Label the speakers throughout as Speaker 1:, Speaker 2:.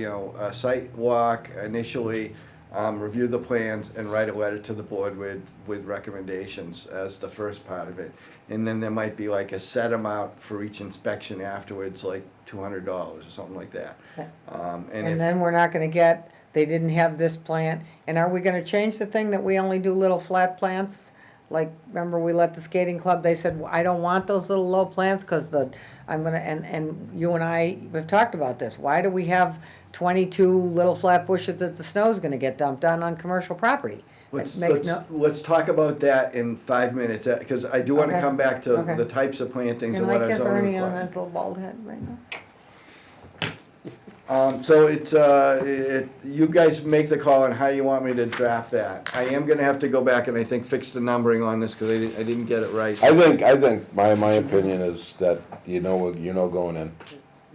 Speaker 1: you know, a site walk initially, um, review the plans and write a letter to the board with, with recommendations as the first part of it. And then there might be like a set amount for each inspection afterwards, like two hundred dollars or something like that. Um, and
Speaker 2: And
Speaker 1: if,
Speaker 2: then we're not gonna get, they didn't have this plant, and are we gonna change the thing that we only do little flat plants? Like, remember we let the skating club, they said, "Well, I don't want those little low plants, cause the, I'm gonna, and, and you and I, we've talked about this. Why do we have twenty-two little flat bushes that the snow's gonna get dumped on on commercial property? It
Speaker 1: let's,
Speaker 2: makes
Speaker 1: let's,
Speaker 2: no-
Speaker 1: let's talk about that in five minutes, uh, cause I do wanna
Speaker 2: Okay.
Speaker 1: come back to
Speaker 2: Okay.
Speaker 1: the types of plantings and
Speaker 2: Can I
Speaker 1: what our
Speaker 2: kiss
Speaker 1: zoning
Speaker 2: Ernie on
Speaker 1: requires.
Speaker 2: his little bald head right now?
Speaker 1: Um, so it's, uh, it, you guys make the call on how you want me to draft that. I am gonna have to go back and I think fix the numbering on this, cause I didn't, I didn't get it right.
Speaker 3: I think, I think, my, my opinion is that you know, what- you know going in.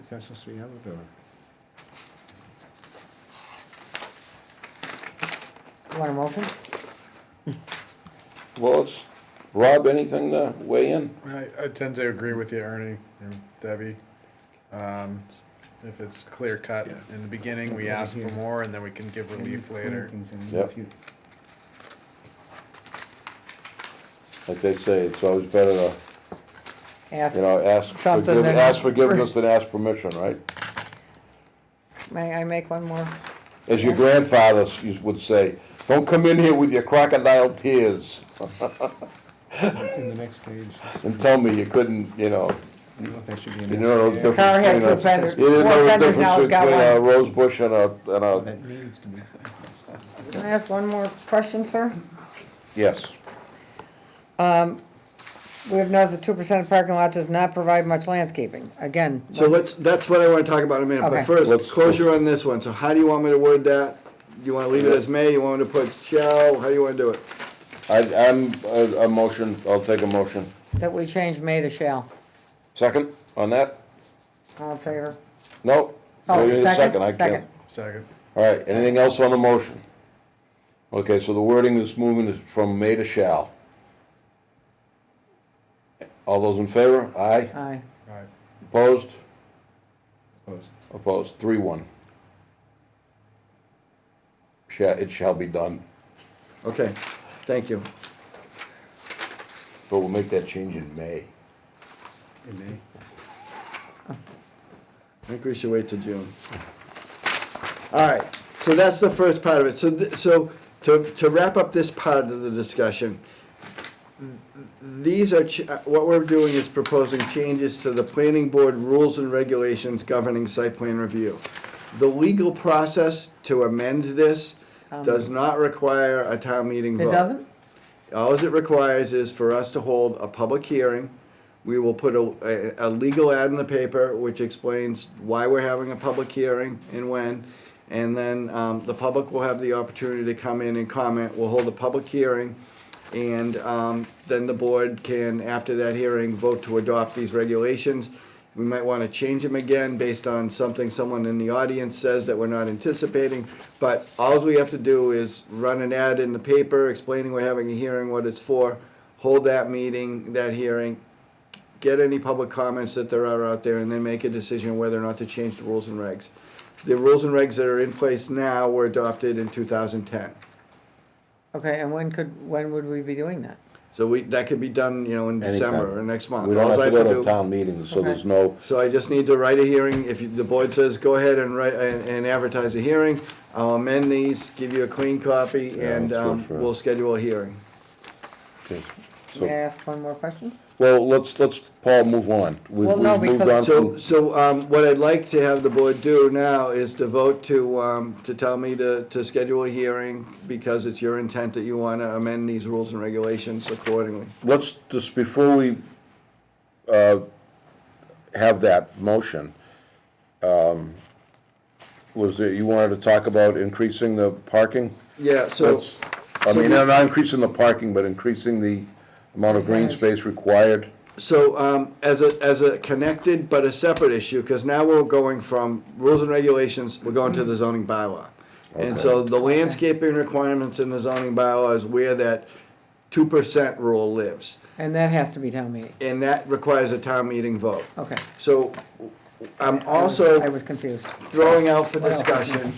Speaker 4: Is that supposed to be yellow or?
Speaker 2: You want 'em open?
Speaker 3: Well, it's, Rob, anything to weigh in?
Speaker 4: I, I tend to agree with you, Ernie and Debbie. Um, if it's clear cut in the beginning, we ask for more and then we can give relief later.
Speaker 3: Yep. Like they say, it's always better to,
Speaker 2: Ask,
Speaker 3: you know, ask,
Speaker 2: Something
Speaker 3: forgive-
Speaker 2: that-
Speaker 3: ask forgiveness than ask permission, right?
Speaker 2: may I make one more?
Speaker 3: As your grandfather s- used- would say, don't come in here with your crocodile tears
Speaker 5: In the next page,
Speaker 3: and tell me you couldn't, you know,
Speaker 5: I don't know if that should be
Speaker 3: you
Speaker 5: in there.
Speaker 3: know the difference.
Speaker 2: Car had
Speaker 3: between
Speaker 2: two
Speaker 3: a-
Speaker 2: fenders.
Speaker 3: You didn't
Speaker 2: Four
Speaker 3: know the
Speaker 2: fenders, now
Speaker 3: difference
Speaker 2: it's got
Speaker 3: between a
Speaker 2: one.
Speaker 3: rose bush and a, and a,
Speaker 5: That needs to be.
Speaker 2: Can I ask one more question, sir?
Speaker 3: yes.
Speaker 2: We have noticed that two percent of parking lot does not provide much landscaping, again.
Speaker 1: So let's, that's what I wanna talk about in a minute,
Speaker 2: Okay.
Speaker 1: but first,
Speaker 3: Let's-
Speaker 1: closure on this one, so how do you want me to word that? You wanna leave it
Speaker 3: Yeah.
Speaker 1: as may, you want me to put shall, how do you wanna do it?
Speaker 3: I, I'm, a, a motion, I'll take a motion.
Speaker 2: That we change may to shall,
Speaker 3: Second on that?
Speaker 2: all in favor?
Speaker 3: No?
Speaker 2: Oh,
Speaker 3: Wait a
Speaker 2: second,
Speaker 3: I can't.
Speaker 2: second.
Speaker 4: Second.
Speaker 3: All right, anything else on the motion? Okay, so the wording is moving is from may to shall. All those in favor? Aye.
Speaker 2: Aye.
Speaker 4: All right.
Speaker 3: Opposed?
Speaker 5: Opposed.
Speaker 3: Opposed, three, one. Shall, it shall be done,
Speaker 1: Okay, thank you.
Speaker 3: but we'll make that change in May.
Speaker 5: In May.
Speaker 1: I think we should wait till June. All right, so that's the first part of it. So, th- so to, to wrap up this part of the discussion, th- these are, ch- uh, what we're doing is proposing changes to the planning board rules and regulations governing site plan review. The legal process to amend this does not require a town meeting vote.
Speaker 2: Um. It doesn't?
Speaker 1: All it requires is for us to hold a public hearing. We will put a, a, a legal ad in the paper which explains why we're having a public hearing and when. And then, um, the public will have the opportunity to come in and comment. We'll hold a public hearing. And, um, then the board can, after that hearing, vote to adopt these regulations. We might want to change them again based on something someone in the audience says that we're not anticipating. But all we have to do is run an ad in the paper explaining we're having a hearing, what it's for, hold that meeting, that hearing, get any public comments that there are out there, and then make a decision whether or not to change the rules and regs. The rules and regs that are in place now were adopted in 2010.
Speaker 2: Okay, and when could, when would we be doing that?
Speaker 1: So we, that could be done, you know, in December
Speaker 3: Anytime.
Speaker 1: or next month.
Speaker 3: We don't
Speaker 1: Alls I
Speaker 3: have to
Speaker 1: have to
Speaker 3: go to
Speaker 1: do-
Speaker 3: town meetings, so there's no,
Speaker 1: So I just need to write a hearing, if you- the board says, go ahead and write, and and advertise a hearing, I'll amend these, give you a clean copy,
Speaker 3: Yeah,
Speaker 1: and
Speaker 3: let's go
Speaker 1: um,
Speaker 3: for it.
Speaker 1: we'll schedule a hearing.
Speaker 3: okay.
Speaker 2: May I
Speaker 3: So,
Speaker 2: ask one more question?
Speaker 3: well, let's, let's, Paul, move on. We've
Speaker 2: Well, no,
Speaker 3: we've moved on
Speaker 2: because-
Speaker 1: So,
Speaker 3: from,
Speaker 1: so um, what I'd like to have the board do now is to vote to, um, to tell me to, to schedule a hearing, because it's your intent that you want to amend these rules and regulations accordingly.
Speaker 3: let's, just before we, uh, have that motion, um, was there, you wanted to talk about increasing the parking?
Speaker 1: Yeah, so,
Speaker 3: Let's- I
Speaker 1: so
Speaker 3: mean,
Speaker 1: we-
Speaker 3: not increasing the parking, but increasing the amount of green space required.
Speaker 1: so um, as a, as a connected but a separate issue, because now we're going from rules and regulations, we're going to the zoning bylaw. And so the landscaping requirements in the zoning bylaw is where that two percent rule lives.
Speaker 2: And that has to be town meeting,
Speaker 1: And that requires a town meeting vote.
Speaker 2: okay.
Speaker 1: So I'm also
Speaker 2: I was confused.
Speaker 1: throwing out for
Speaker 2: What else?
Speaker 1: discussion